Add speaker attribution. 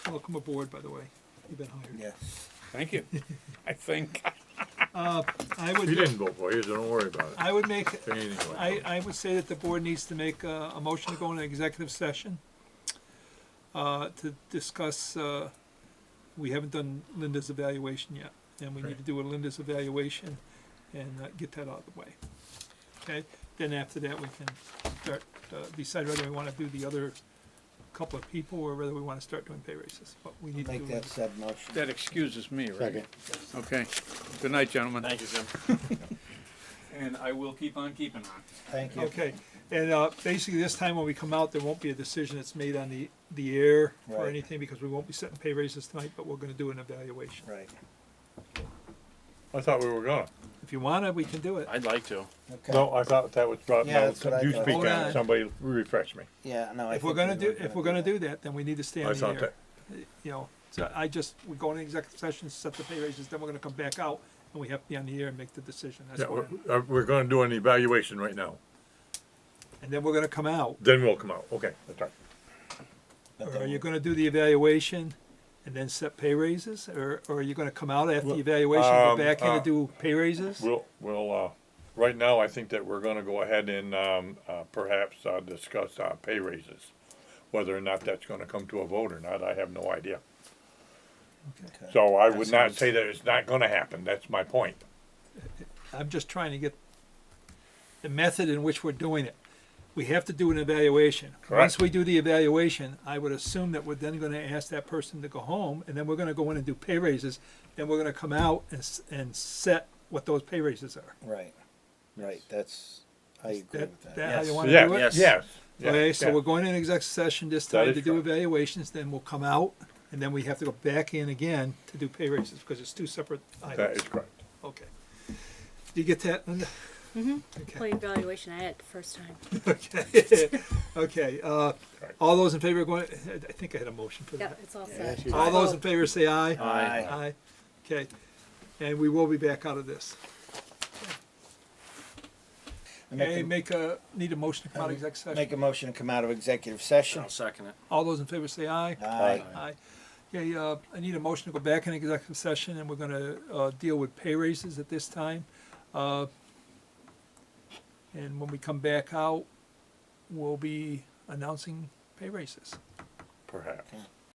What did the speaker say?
Speaker 1: Welcome aboard, by the way. You've been hired.
Speaker 2: Yes.
Speaker 3: Thank you. I think.
Speaker 1: I
Speaker 4: He
Speaker 1: would,
Speaker 4: didn't vote for you, so don't worry about it.
Speaker 1: I would make,
Speaker 4: Anyway.
Speaker 1: I, I would say that the board needs to make a, a motion to go into executive session uh, to discuss, uh, we haven't done Linda's evaluation yet, and we need to do a Linda's evaluation and uh, get that out of the way. Okay, then after that, we can start, uh, decide whether we wanna do the other couple of people or whether we wanna start doing pay raises, but we need to do.
Speaker 2: Make that said motion.
Speaker 3: That excuses me, right? Okay. Good night, gentlemen.
Speaker 5: Thank you, Jim. And I will keep on keeping on.
Speaker 2: Thank you.
Speaker 1: Okay, and uh, basically this time when we come out, there won't be a decision that's made on the, the air or
Speaker 2: Right.
Speaker 1: anything because we won't be setting pay raises tonight, but we're gonna do an evaluation.
Speaker 2: Right,
Speaker 4: I thought we were gonna.
Speaker 1: If you wanna, we can do it.
Speaker 5: I'd like to.
Speaker 2: okay.
Speaker 4: No, I thought that was brought,
Speaker 2: Yeah,
Speaker 4: no,
Speaker 2: that's what I
Speaker 4: you
Speaker 2: thought.
Speaker 4: speak
Speaker 1: Hold
Speaker 4: on,
Speaker 1: on.
Speaker 4: it. somebody refresh me.
Speaker 2: Yeah, no, I.
Speaker 1: If we're
Speaker 2: think
Speaker 1: gonna
Speaker 2: we were
Speaker 1: do, if we're gonna do that, then we need to stay
Speaker 4: I
Speaker 1: on the
Speaker 4: thought
Speaker 1: air.
Speaker 4: that,
Speaker 1: You know, so I just, we go into executive session, set the pay raises, then we're gonna come back out and we have to be on the air and make the decision. That's
Speaker 4: yeah,
Speaker 1: what,
Speaker 4: we're, uh, we're gonna do an evaluation right now,
Speaker 1: and then we're gonna come out.
Speaker 4: then we'll come out, okay, that's right.
Speaker 1: Or
Speaker 2: But
Speaker 1: are
Speaker 2: then
Speaker 1: you gonna do the evaluation and then set pay raises? Or, or are you gonna come out after the
Speaker 4: Well,
Speaker 1: evaluation, go
Speaker 4: um,
Speaker 1: back in
Speaker 4: uh,
Speaker 1: and do pay raises?
Speaker 4: We'll, we'll, uh, right now, I think that we're gonna go ahead and, um, uh, perhaps, uh, discuss, uh, pay raises. Whether or not that's gonna come to a vote or not, I have no idea.
Speaker 1: Okay.
Speaker 4: So I
Speaker 5: That
Speaker 4: would not
Speaker 5: sounds-
Speaker 4: say that it's not gonna happen, that's my point.
Speaker 1: I'm just trying to get the method in which we're doing it. We have to do an evaluation. Once
Speaker 4: Correct.
Speaker 1: we do the evaluation, I would assume that we're then gonna ask that person to go home, and then we're gonna go in and do pay raises, and we're gonna come out and, s- and set what those pay raises are.
Speaker 2: Right, right, that's, I agree
Speaker 1: That,
Speaker 2: with that.
Speaker 1: that how you
Speaker 5: Yes.
Speaker 1: wanna do it?
Speaker 4: Yeah,
Speaker 5: Yes.
Speaker 4: yes.
Speaker 1: Okay,
Speaker 4: yes,
Speaker 1: so
Speaker 4: yes.
Speaker 1: we're going in exec session this
Speaker 4: That
Speaker 1: time
Speaker 4: is
Speaker 1: to do
Speaker 4: correct.
Speaker 1: evaluations, then we'll come out, and then we have to go back in again to do pay raises, because it's two separate
Speaker 4: That
Speaker 1: items.
Speaker 4: is correct.
Speaker 1: Okay. Do you get that, Linda? Okay.
Speaker 6: Play evaluation I had it the first time.
Speaker 1: Okay, okay, uh,
Speaker 4: Right.
Speaker 1: all those in favor of going, I I think I had a motion for
Speaker 6: Yep,
Speaker 1: that.
Speaker 6: it's all set.
Speaker 1: All those in favor say aye.
Speaker 2: Aye.
Speaker 1: Aye, okay, and we will be back out of this.
Speaker 2: I make
Speaker 1: Okay,
Speaker 2: a-
Speaker 1: make a, need a motion to come out of exec
Speaker 2: Make
Speaker 1: session.
Speaker 2: a motion to come out of executive session.
Speaker 5: I'll second it.
Speaker 1: All those in favor say aye.
Speaker 2: Aye.
Speaker 1: Aye. Okay, uh, I need a motion to go back in executive session, and we're gonna, uh, deal with pay raises at this time. Uh, And when we come back out, we'll be announcing pay raises.
Speaker 4: Perhaps.